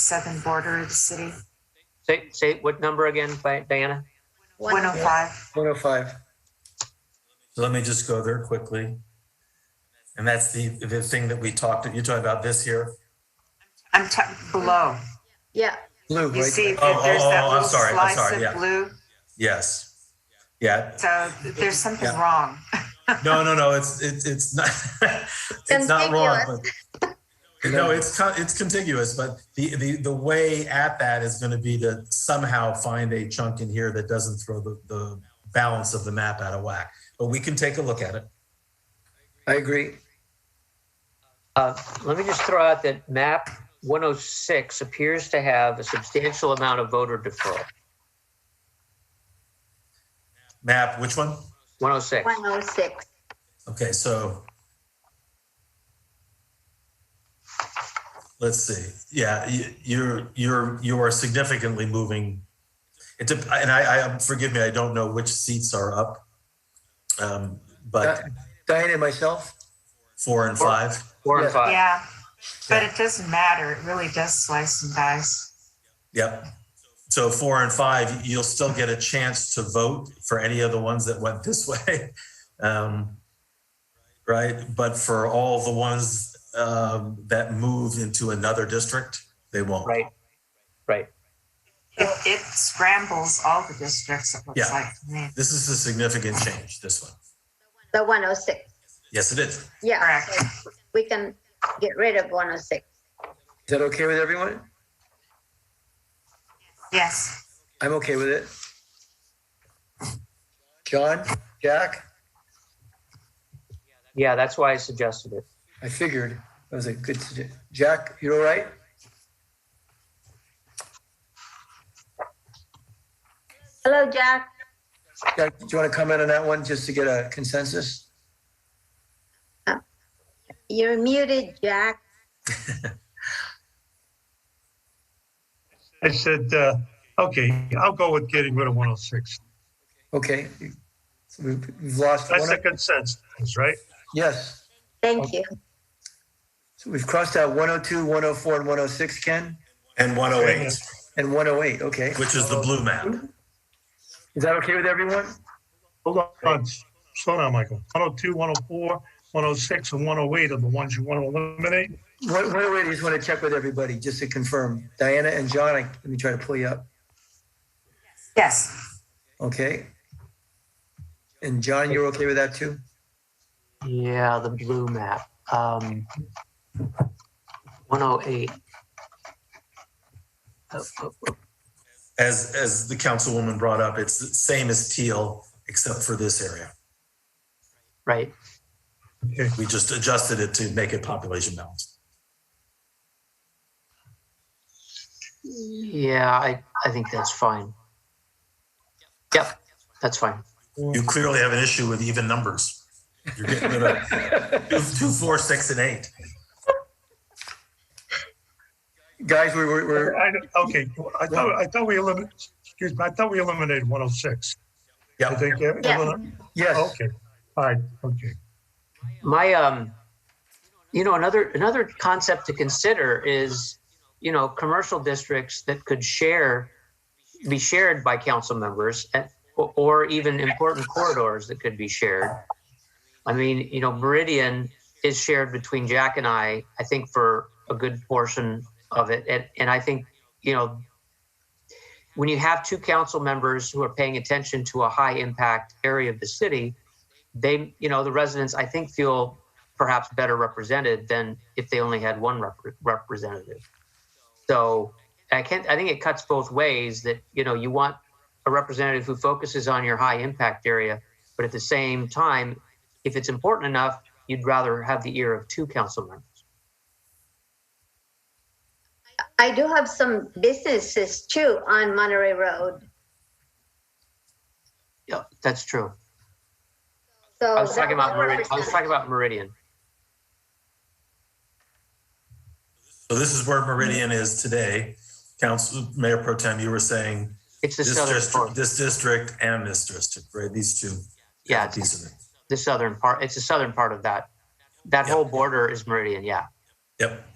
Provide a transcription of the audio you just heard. southern border of the city. Say, say what number again, Di- Diana? 105. 105. So let me just go there quickly. And that's the, the thing that we talked, you're talking about this here? I'm t- below. Yeah, Blue, You right? see, Oh, that there's oh, that oh, I'm little sorry, slice I'm sorry, of yeah. blue. Yes. Yeah. So th- there's something Yeah. wrong. No, no, no, it's, it's, it's not, it's not wrong. but- No, it's, con- it's contiguous, but the, the, the way at that is going to be to somehow find a chunk in here that doesn't throw the, the balance of the map out of whack. But we can take a look at it. I agree. Uh, let me just throw out that map 106 appears to have a substantial amount of voter deferral. Map, which one? 106. 106. Okay, so. Let's see. Yeah, you, you're, you're, you are significantly moving. It, dep- and I, I, forgive me, I don't know which seats are up. Um, but Uh, Diane and myself, four and five. Four Yeah. and five. Yeah, but Yeah, it doesn't matter. It really does slice and dice. Yep. So four and five, you'll still get a chance to vote for any of the ones that went this way. Um, right? But for all the ones, um, that moved into another district, they won't. Right. Right. It, it scrambles all the districts, it looks Yeah. like to me. This is a significant change, this one. The 106, Yes, it is. yeah. Correct. so We can get rid of 106. is that okay with everyone? Yes. I'm okay with it. John, Jack, Yeah, that's why I suggested it. I figured that was a good, sugge- Jack, you all right? Hello, Jack. Jack, do you want to comment on that one just to get a consensus? You're muted, Jack. I said, uh, okay, I'll go with getting rid of 106. Okay. So We've we've lost That's the one. oh consensus, right? Yes. Thank you. So we've crossed oh out 102, 104, and 106, Ken, And 108, and 108. Okay. which is the blue map. Is that okay with everyone? Hold on, slow down, Michael. 102, 104, 106, and 108 are the ones you want to eliminate? 108, I just want to check with everybody just to confirm. Diana and John, I- let me try to pull you up. Yes. Okay. And John, you're okay with that too? Yeah, the blue map. Um, 108. Uh, uh, uh, As, as the councilwoman brought up, it's the same as teal, except for this area. Right. We just adjusted it to make it population balanced. Yeah, I, I think that's fine. Yep, that's fine. You clearly have an issue with even numbers. You're getting rid of two, two, four, six, and eight. Guys, we were, we're, I don't- Okay, I thought, I thought we eliminated, excuse me, I thought we eliminated 106. I Yeah, think, uh, Yeah. elimin- yes, okay, all right, okay. My, um, you know, another, another concept to consider is, you know, commercial districts that could share, be shared by council members and, or- or even important corridors that could be shared. I mean, you know, Meridian is shared between Jack and I, I think for a good portion of it. And, and I think, you know, when you have two council members who are paying attention to a high impact area of the city, they, you know, the residents, I think, feel perhaps better represented than if they only had one rep- representative. So I can't, I think it cuts both ways that, you know, you want a representative who focuses on your high impact area, but at the same time, if it's important enough, you'd rather have the ear of two council members. I do have some businesses too on Monterey Road. Yeah, that's true. So. I was talking about Oh, that Meridian. I was talking about Meridian. so this is where Meridian is today. Council, Mayor Pro Tem, you were saying It's the this southern district, part. this district and this district, right? These two. Yeah, it's Piece of it. the southern part. It's the southern part of that. That Yeah. whole border is Meridian. Yeah. Yep.